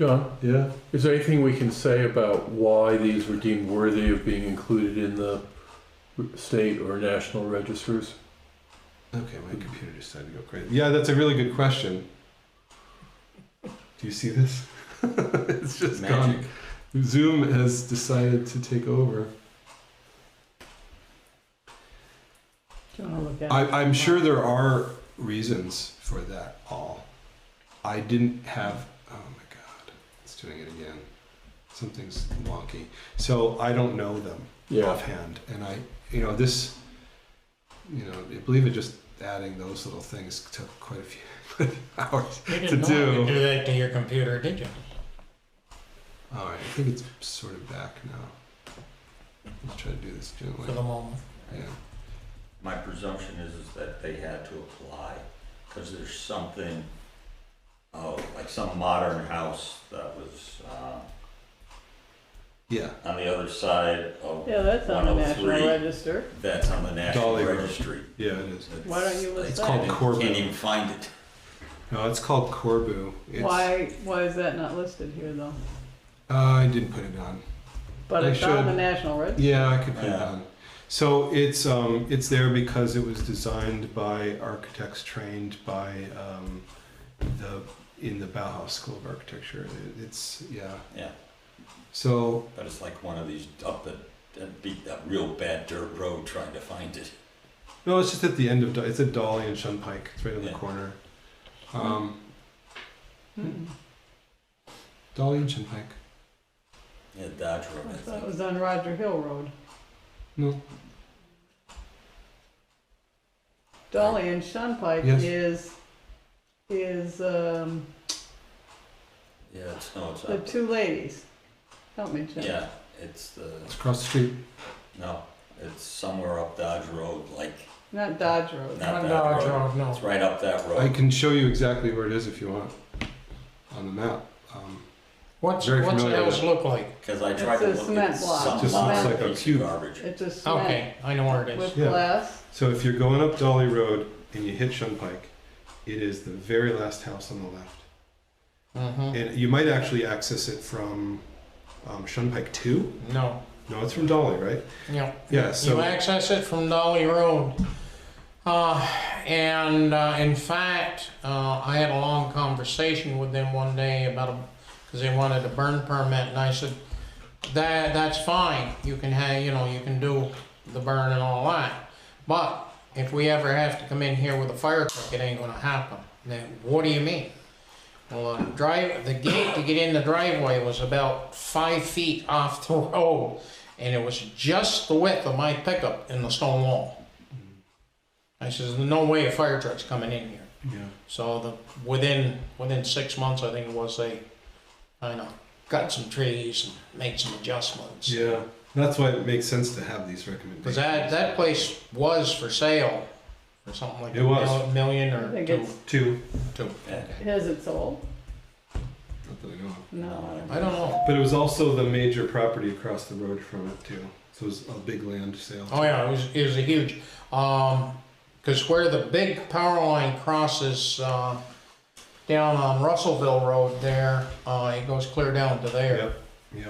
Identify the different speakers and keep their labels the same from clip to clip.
Speaker 1: John,
Speaker 2: Yeah,
Speaker 1: is there anything we can say about why these were deemed worthy of being included in the state or national registers?
Speaker 2: okay, my computer decided to go crazy. Yeah, that's a really good question. Do you see this? it's just
Speaker 3: Magic.
Speaker 2: gone. Zoom has decided to take over.
Speaker 4: Do you want to look at
Speaker 2: I,
Speaker 4: it?
Speaker 2: I'm sure there are reasons for that all. I didn't have. Oh my God, it's doing it again. Something's wonky. So I don't know them
Speaker 1: Yeah,
Speaker 2: offhand, and I, you know, this, you know, I believe it just adding those little things took quite a few, quite a few hours.
Speaker 3: You
Speaker 2: To
Speaker 3: didn't know you
Speaker 2: do.
Speaker 3: could do that to your computer, did you?
Speaker 2: All right, I think it's sort of back now. Let's try to do this
Speaker 3: For the
Speaker 2: gently.
Speaker 3: moment.
Speaker 2: Yeah.
Speaker 5: My presumption is, is that they had to apply, because there's something, oh, like some modern house that was, uh,
Speaker 2: Yeah.
Speaker 5: on the other side of,
Speaker 4: Yeah, that's on the National
Speaker 5: 103.
Speaker 4: Register.
Speaker 5: that's on the National
Speaker 2: Dolly Grove.
Speaker 5: Registry.
Speaker 2: Yeah, it is.
Speaker 4: Why don't you list
Speaker 5: It's
Speaker 4: that?
Speaker 2: called Corbin.
Speaker 5: Can't even find it.
Speaker 2: No, it's called Corbu. It's,
Speaker 4: Why, why is that not listed here though?
Speaker 2: Uh, I didn't put it on.
Speaker 4: But
Speaker 2: I
Speaker 4: it's on the
Speaker 2: should.
Speaker 4: National Register.
Speaker 2: Yeah, I could put it
Speaker 5: Yeah.
Speaker 2: on. So it's um, it's there because it was designed by architects trained by um, the in the Bauhaus School of Architecture. It- It's yeah.
Speaker 5: Yeah.
Speaker 2: So
Speaker 5: But it's like one of these up a, a, beat- a real bad dirt road trying to find it.
Speaker 2: no, it's just at the end of Do- it's at Dolly and Shunpike. It's right on the
Speaker 5: Yeah.
Speaker 2: corner. Um,
Speaker 4: Mm-mm.
Speaker 2: Dolly and Shunpike.
Speaker 5: Yeah, Dodge Road,
Speaker 4: I
Speaker 5: I
Speaker 4: thought it
Speaker 5: think.
Speaker 4: was on Roger Hill Road.
Speaker 2: No.
Speaker 4: Dolly and Shunpike
Speaker 2: Yes.
Speaker 4: is, is, um,
Speaker 5: Yeah, it's, no, it's
Speaker 4: the
Speaker 5: not.
Speaker 4: two ladies. Help me, Jim.
Speaker 5: Yeah, it's the,
Speaker 2: It's across the street.
Speaker 5: no, it's somewhere up Dodge Road, like,
Speaker 4: Not Dodge Road.
Speaker 3: Not
Speaker 5: not Dodge
Speaker 3: Dodge
Speaker 5: Road.
Speaker 3: Road, Uh, no.
Speaker 5: It's right up that road.
Speaker 2: I can show you exactly where it is if you want on the map. Um,
Speaker 3: What's,
Speaker 2: Very
Speaker 3: what's the
Speaker 2: familiar.
Speaker 3: house look like?
Speaker 5: Because I
Speaker 4: It's
Speaker 5: tried
Speaker 4: a
Speaker 5: to look
Speaker 4: cement
Speaker 5: at
Speaker 4: block.
Speaker 5: some
Speaker 2: Just looks like
Speaker 5: modern
Speaker 2: a
Speaker 5: piece
Speaker 2: cube.
Speaker 5: of garbage.
Speaker 4: It's a cement
Speaker 3: Okay, I know where it is.
Speaker 4: with
Speaker 2: Yeah.
Speaker 4: glass.
Speaker 2: So if you're going up Dolly Road and you hit Shunpike, it is the very last house on the left.
Speaker 3: Mm-hmm.
Speaker 2: And you might actually access it from um, Shunpike 2.
Speaker 3: No,
Speaker 2: No, it's from Dolly, right?
Speaker 3: no.
Speaker 2: Yeah,
Speaker 3: You
Speaker 2: so
Speaker 3: access it from Dolly Road. Uh, and uh, in fact, uh, I had a long conversation with them one day about a, because they wanted a burn permit, and I said, that that's fine. You can have, you know, you can do the burn and all that. But if we ever have to come in here with a fire truck, it ain't gonna happen. Then what do you mean? Well, uh, drive the gate to get in the driveway was about five feet off the road, and it was just the width of my pickup in the stone wall. I says, no way a fire truck's coming in here.
Speaker 2: yeah.
Speaker 3: So the, within, within six months, I think it was, they, I know, cut some trees and made some adjustments.
Speaker 2: yeah, that's why it makes sense to have these recommendations.
Speaker 3: Cause that, that place was for sale for something like
Speaker 2: It
Speaker 3: a
Speaker 2: was.
Speaker 3: mil- million
Speaker 4: I
Speaker 3: or
Speaker 4: think
Speaker 3: two.
Speaker 4: it's,
Speaker 2: two?
Speaker 5: Yeah.
Speaker 4: has it sold?
Speaker 2: Not that I know of.
Speaker 4: No.
Speaker 3: I don't know.
Speaker 2: But it was also the major property across the road from it too. So it was a big land sale.
Speaker 3: Oh yeah, it was, it was a huge, um 'cause cause where the big power line crosses, uh, down on Russellville Road there, uh, it goes clear down to there.
Speaker 2: Yep. Yep.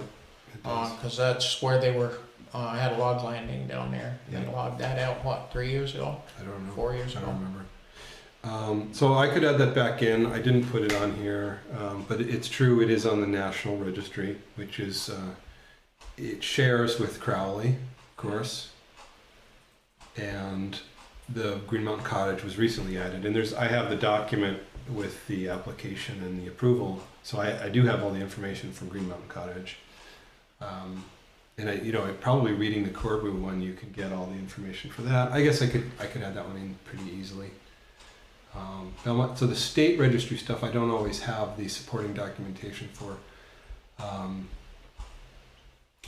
Speaker 2: It does.
Speaker 3: Uh, cause that's where they were, uh, had a log landing down there. They
Speaker 2: Yeah.
Speaker 3: logged that out, what, three years ago,
Speaker 2: I don't know.
Speaker 3: four years
Speaker 2: I
Speaker 3: ago?
Speaker 2: don't remember. Um, so I could add that back in. I didn't put it on here, um, but it's true. It is on the National Registry, which is uh, it shares with Crowley, of course, and the Green Mountain Cottage was recently added. And there's I have the document with the application and the approval, so I, I do have all the information from Green Mountain Cottage. Um, and I, you know, probably reading the Corbu one, you could get all the information for that. I guess I could, I could add that one in pretty easily. Um, now, what- so the state registry stuff, I don't always have the supporting documentation for. Um,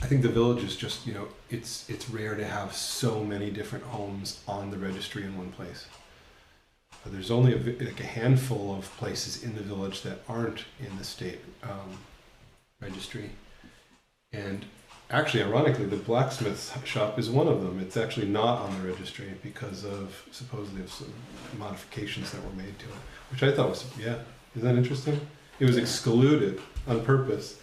Speaker 2: I think the village is just, you know, it's it's rare to have so many different homes on the registry in one place. But there's only a, vi- like a handful of places in the village that aren't in the state um, registry, and Actually, ironically, the blacksmith shop is one of them. It's actually not on the registry because of supposedly of some modifications that were made to it, which I thought was yeah. Is that interesting? It was excluded on purpose.